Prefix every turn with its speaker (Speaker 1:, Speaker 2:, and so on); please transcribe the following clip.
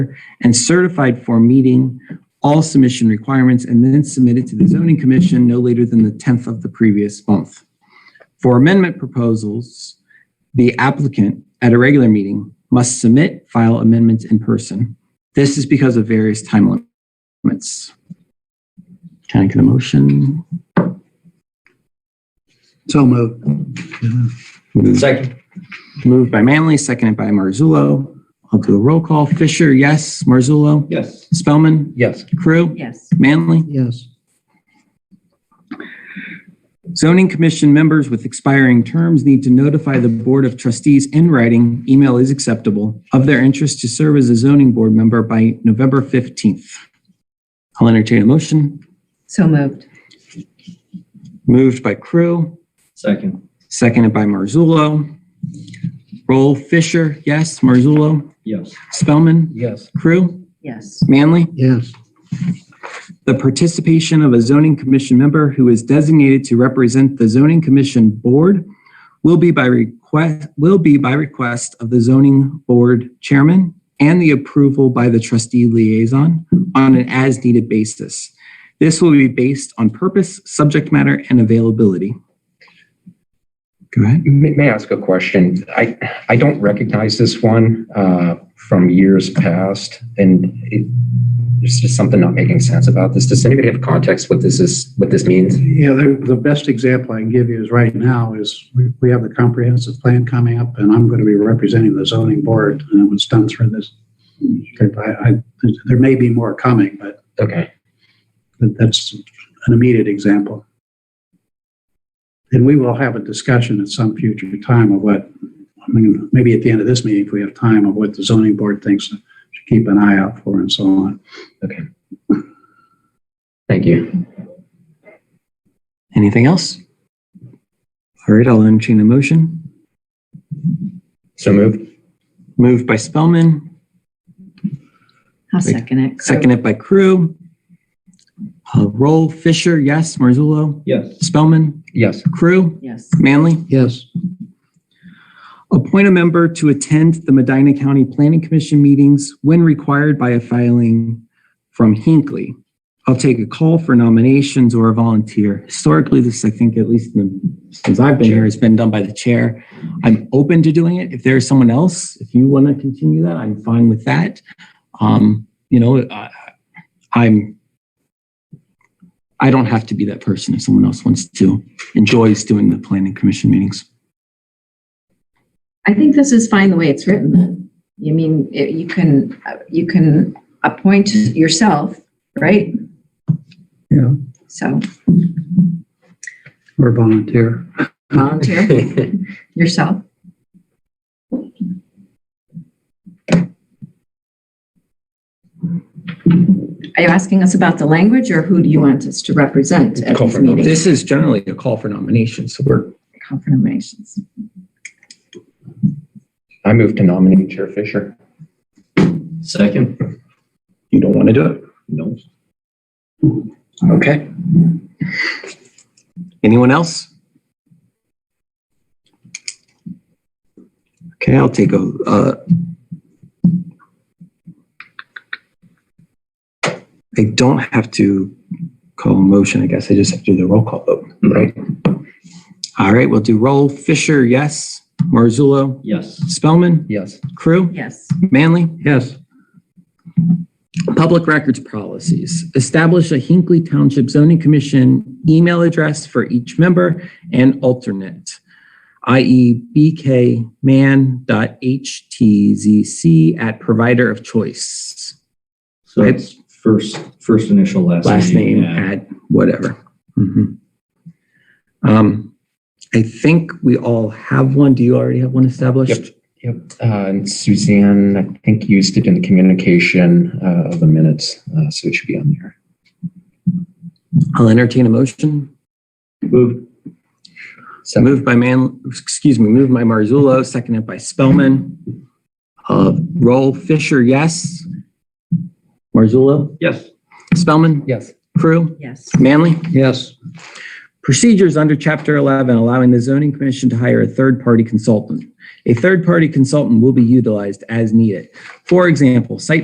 Speaker 1: and certified for meeting all submission requirements and then submitted to the zoning commission no later than the 10th of the previous month. For amendment proposals, the applicant at a regular meeting must submit file amendments in person. This is because of various time limits. Can I get a motion?
Speaker 2: So moved.
Speaker 3: Second.
Speaker 1: Moved by Manley, seconded by Marzullo. I'll do a roll call. Fisher, yes. Marzullo?
Speaker 3: Yes.
Speaker 1: Spellman?
Speaker 3: Yes.
Speaker 1: Crew?
Speaker 4: Yes.
Speaker 1: Manley?
Speaker 2: Yes.
Speaker 1: Zoning Commission members with expiring terms need to notify the Board of Trustees in writing, email is acceptable, of their interest to serve as a zoning board member by November 15th. I'll entertain a motion.
Speaker 4: So moved.
Speaker 1: Moved by Crew,
Speaker 3: Second.
Speaker 1: seconded by Marzullo. Roll Fisher, yes. Marzullo?
Speaker 3: Yes.
Speaker 1: Spellman?
Speaker 3: Yes.
Speaker 1: Crew?
Speaker 4: Yes.
Speaker 1: Manley?
Speaker 2: Yes.
Speaker 1: the participation of a zoning commission member who is designated to represent the zoning commission board will be by request, will be by request of the zoning board chairman and the approval by the trustee liaison on an as-needed basis. This will be based on purpose, subject matter, and availability. Go ahead.
Speaker 5: May may I ask a question? I, I don't recognize this one uh, from years past, and it- there's just something not making sense about this. Does anybody have context what this is, what this means?
Speaker 2: Yeah, the, the best example I can give you is right now is we, we have the comprehensive plan coming up and I'm going to be representing the zoning board and it was done through this. I, I, there may be more coming, but
Speaker 5: Okay,
Speaker 2: that- that's an immediate example. And we will have a discussion at some future time of what, I mean, maybe at the end of this meeting, if we have time, of what the zoning board thinks to keep an eye out for and so on.
Speaker 5: thank you.
Speaker 1: Anything else? All right, I'll entertain a motion.
Speaker 5: So moved?
Speaker 1: Moved by Spellman,
Speaker 4: I'll
Speaker 1: Wait.
Speaker 4: second it.
Speaker 1: Seconded by Crew. Uh, Roll Fisher, yes. Marzullo,
Speaker 3: Yes.
Speaker 1: Spellman,
Speaker 5: Yes.
Speaker 1: Crew,
Speaker 4: Yes.
Speaker 1: Manley.
Speaker 2: Yes.
Speaker 1: Appoint a member to attend the Medina County Planning Commission meetings when required by a filing from Hinckley. I'll take a call for nominations or a volunteer. Historically, this, I think, at least in the- since I've been here, has been done by the chair. I'm open to doing it. If there's someone else, if you want to continue that, I'm fine with that. Um, you know, I, I'm, I don't have to be that person if someone else wants to, enjoys doing the planning commission meetings.
Speaker 4: I think this is fine the way it's written then. You mean, it- you can, uh, you can appoint yourself, right?
Speaker 2: Yeah.
Speaker 4: So
Speaker 2: Or volunteer.
Speaker 4: volunteer yourself. Are you asking us about the language or who do you want us to represent at
Speaker 5: Call
Speaker 4: these
Speaker 5: for
Speaker 4: meetings?
Speaker 1: This is generally a call for nominations, so we're,
Speaker 4: Confirmations.
Speaker 5: I move to nominate Chair Fisher.
Speaker 3: Second.
Speaker 1: you don't want to do it.
Speaker 3: No.
Speaker 5: Okay.
Speaker 1: Anyone else? Okay, I'll take a, uh, I don't have to call a motion, I guess. I just have to do the roll call vote, right? All right, we'll do roll. Fisher, yes. Marzullo,
Speaker 3: Yes.
Speaker 1: Spellman,
Speaker 5: Yes.
Speaker 1: Crew,
Speaker 4: Yes.
Speaker 1: Manley.
Speaker 2: Yes.
Speaker 1: Public records policies. Establish a Hinkley Township Zoning Commission email address for each member and alternate, e i.e. bkman.htzc at provider of choice,
Speaker 3: So it's first, first initial, last name.
Speaker 1: last name
Speaker 3: Yeah.
Speaker 1: at whatever. Mhm. Um, I think we all have one. Do you already have one established?
Speaker 5: Yep. Uh, And Suzanne, I think, used it in the communication uh, of the minutes, uh, so it should be on there.
Speaker 1: I'll entertain a motion.
Speaker 3: Moved.
Speaker 5: So
Speaker 1: Moved by Man, excuse me, moved by Marzullo, seconded by Spellman. Uh, roll Fisher, yes. Marzullo,
Speaker 3: Yes.
Speaker 1: Spellman,
Speaker 5: Yes.
Speaker 1: Crew,
Speaker 4: Yes.
Speaker 1: Manley.
Speaker 2: Yes.
Speaker 1: Procedures under Chapter 11 allowing the zoning commission to hire a third-party consultant. A third-party consultant will be utilized as needed. For example, site